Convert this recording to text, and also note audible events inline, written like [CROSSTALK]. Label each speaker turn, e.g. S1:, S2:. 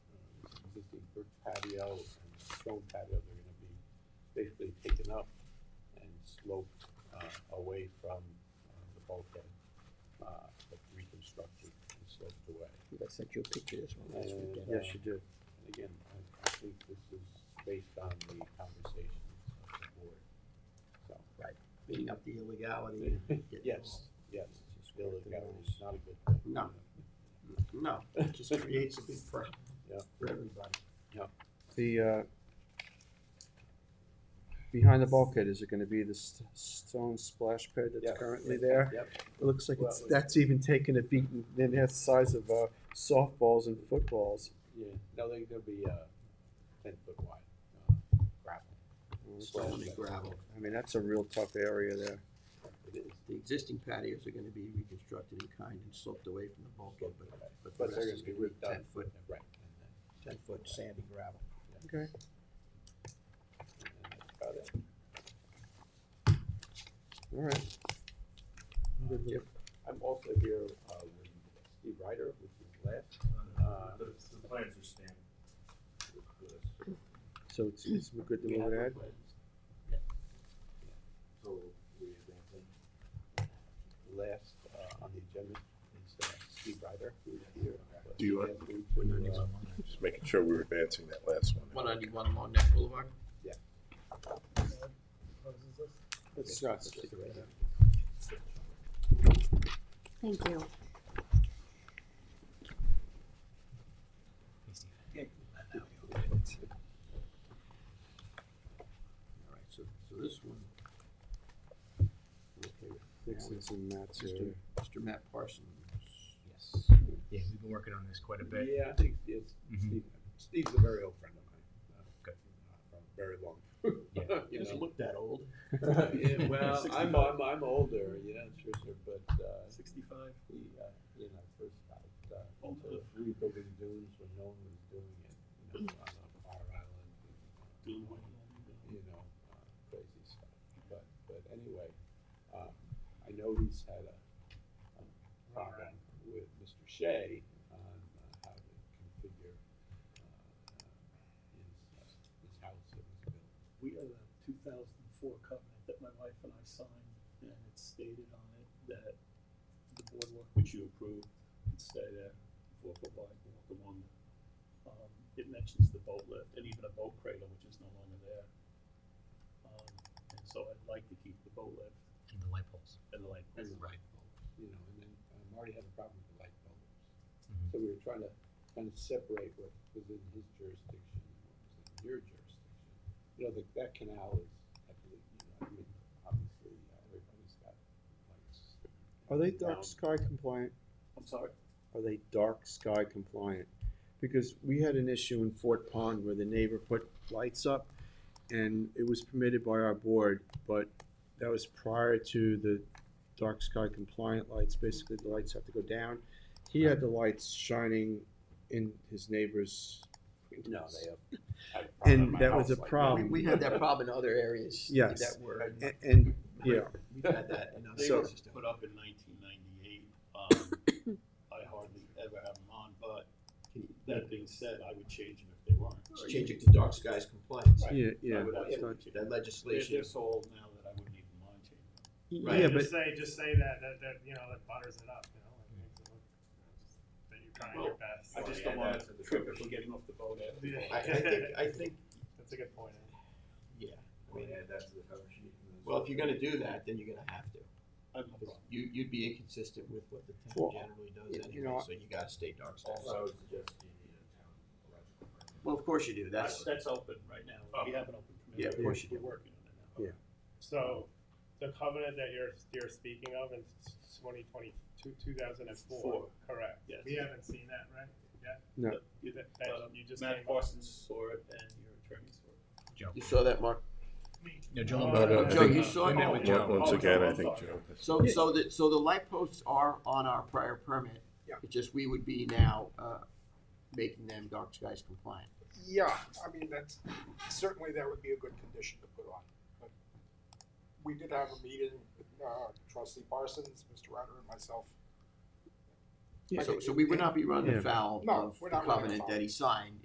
S1: covered patio and a stone patio, they're gonna be basically taken up and sloped, uh, away from, uh, the bulkhead, uh, but reconstructed and sloped away.
S2: I sent you a picture of this one last
S1: And,
S2: weekend.
S1: uh,
S3: Yes, you did.
S1: And again, I, I think this is based on the conversations of the board, so.
S2: Cleaning up the illegality. and getting
S1: Yes, yes,
S2: Just
S1: Bill
S2: work
S1: is
S2: the
S1: got it.
S2: rules.
S1: It's not a good thing.
S2: No. all- No, it just creates a big problem
S1: Yeah.
S2: for everybody.
S3: The, uh, behind the bulkhead, is it gonna be the st- stone splash pad
S1: Yeah.
S3: that's currently there?
S1: Yep,
S3: It looks like it's,
S1: Well,
S3: that's even taken a beating, then that's the size of, uh, softballs and footballs.
S1: yeah, no, they're gonna be, uh, ten foot wide, uh, gravel.
S2: Stone and gravel.
S3: I mean, that's a real tough area there.
S1: It is,
S2: The existing patios are gonna be reconstructed in kind and sloped away from the bulkhead, but, but
S1: but
S2: the
S1: they're
S2: rest
S1: gonna
S2: is
S1: be
S2: gonna be
S1: ripped up.
S2: ten foot,
S1: Right.
S2: ten foot sandy gravel.
S3: Okay.
S1: And then- and that's about it.
S3: All right.
S1: Yep. I'm also here, uh, with Steve Ryder, which is last,
S4: Uh, The, the plans are standard.
S3: So it's, it's good to
S1: We
S3: move
S1: have
S3: ahead?
S1: replaced
S4: So we advancing.
S1: Last, uh, on the agenda is, uh, Steve Ryder, who is here.
S5: Do you want-
S1: One ninety-one.
S5: Just making sure we're advancing that last one.
S2: One ninety-one Long Neck Boulevard?
S3: It's not.
S6: Thank you.
S2: All right, so, so this one. Okay,
S3: Nixon's and Matt's
S2: Mr.
S3: area.
S2: Mr. Matt Parsons.
S7: Yes. Yeah, we've been working on this quite a bit.
S1: Yeah, I think it's
S7: Mhm.
S1: Steve. Steve's a very old friend of mine. uh,
S7: Good.
S1: From very long. [LAUGHS]
S7: Yeah.
S1: you know.
S2: look that old.
S1: [LAUGHS] yeah, well, I'm, I'm I'm older, you know, sure, sure, but uh,
S4: Sixty-five?
S1: he, uh, you know, first got uh, into rebuilding dunes when no one was doing it, you know, on a fire island. and, uh, You know, uh, crazy stuff. But but anyway, um, I know he's had a, a problem with Mr. Shea on uh, how to configure uh, uh, his, uh, his house that was built.
S8: we have a two thousand and four covenant that my wife and I signed, and it stated on it that the boardwalk which you approved could stay there, walk a bike, walk along. Um, it mentions the boat lift and even a boat cradle, which is no longer there. Um, and so I'd like to keep the boat lift
S7: In the light poles.
S8: and the light.
S1: and the light bulbs, you know, and then uh, Marty had a problem with the light bulbs. So we were trying to kind of separate what was in his jurisdiction and what was in your jurisdiction. You know, the, that canal is, I believe, you know, I mean, obviously, uh, everybody's got lights.
S3: Are they
S1: Now,
S3: dark sky compliant?
S8: I'm sorry,
S3: Are they dark sky compliant? Because we had an issue in Fort Pond where the neighbor put lights up and it was permitted by our board, but that was prior to the dark sky compliant lights. Basically, the lights have to go down. He had the lights shining in his neighbor's.
S1: No, they
S8: [LAUGHS]
S1: have. I have a problem
S3: And
S1: at my
S3: that was
S1: house like
S3: a
S2: We,
S3: problem.
S2: we had that problem in other areas.
S3: Yes.
S2: That were,
S3: A- And, yeah,
S2: we've had that in other
S8: They were
S2: areas. too.
S8: put up in nineteen ninety-eight,
S1: [COUGHS]
S8: um, I hardly ever have them on, but that being said, I would change them if they weren't.
S2: Just Change it to dark skies compliance.
S3: yeah,
S8: I
S3: yeah.
S8: would
S3: It's not-
S8: absolutely change
S2: That
S8: it. They're,
S2: legislation
S8: they're
S2: is
S8: so old now that I wouldn't even mind changing. them.
S2: Right.
S3: Yeah, but
S9: Just say, just say that, that, that, you know, that butters it up, you know, like, makes it look, you know, just that you're trying your best.
S8: I just
S4: Yeah,
S8: don't want
S4: that's a
S8: to trip if we're getting off the boat after.
S9: Yeah.
S2: I, I think, I
S8: [LAUGHS]
S2: think,
S9: That's a good point. eh?
S2: yeah,
S4: I mean, add that to the cover sheet.
S2: well, if you're gonna do that, then you're gonna have to.
S8: I have no problem.
S2: You, you'd be inconsistent with what the
S3: Well,
S2: town generally
S3: you
S2: does anyway,
S3: know,
S2: so you gotta stay dark
S4: Also,
S2: skies.
S4: I would suggest you need a town electrical permit.
S2: Well, of course you do,
S8: That's,
S2: that's,
S8: that's open right now. We
S4: Oh.
S8: have an open
S2: yeah, of
S8: committee.
S2: course you
S8: We're
S2: do.
S8: working on it now.
S9: So, the covenant that you're, you're speaking of in twenty twenty, two, two thousand and four,
S8: Four.
S9: correct?
S8: Yes.
S9: We haven't seen that, right? Yeah?
S3: No.
S9: You- that- that-
S8: Uh,
S9: you just
S8: Matt
S9: came up-
S8: Parsons saw it and your attorney saw it.
S7: Joe.
S2: You saw that, Mark?
S7: No, Joe.
S9: Oh,
S7: Lombardo.
S5: no, no,
S7: We
S5: Joe,
S7: met-
S2: you saw
S7: We
S2: it.
S7: met with Joe.
S5: Once
S9: Oh,
S5: again,
S9: Joe,
S5: I
S9: I'm
S5: think,
S9: sorry.
S5: Joe.
S2: So, so the, so the light posts are on our prior permit.
S3: Yeah.
S2: It's just we would be now, uh, making them dark skies compliant.
S10: Yeah, I mean, that's, certainly that would be a good condition to put on. But We did have a meeting with uh, trustee Parsons, Mr. Ryder and myself.
S2: So, so we would not be running
S3: Yeah.
S2: afoul
S10: No,
S2: of
S10: we're
S2: the
S10: not running
S2: covenant
S10: afoul.
S2: that he signed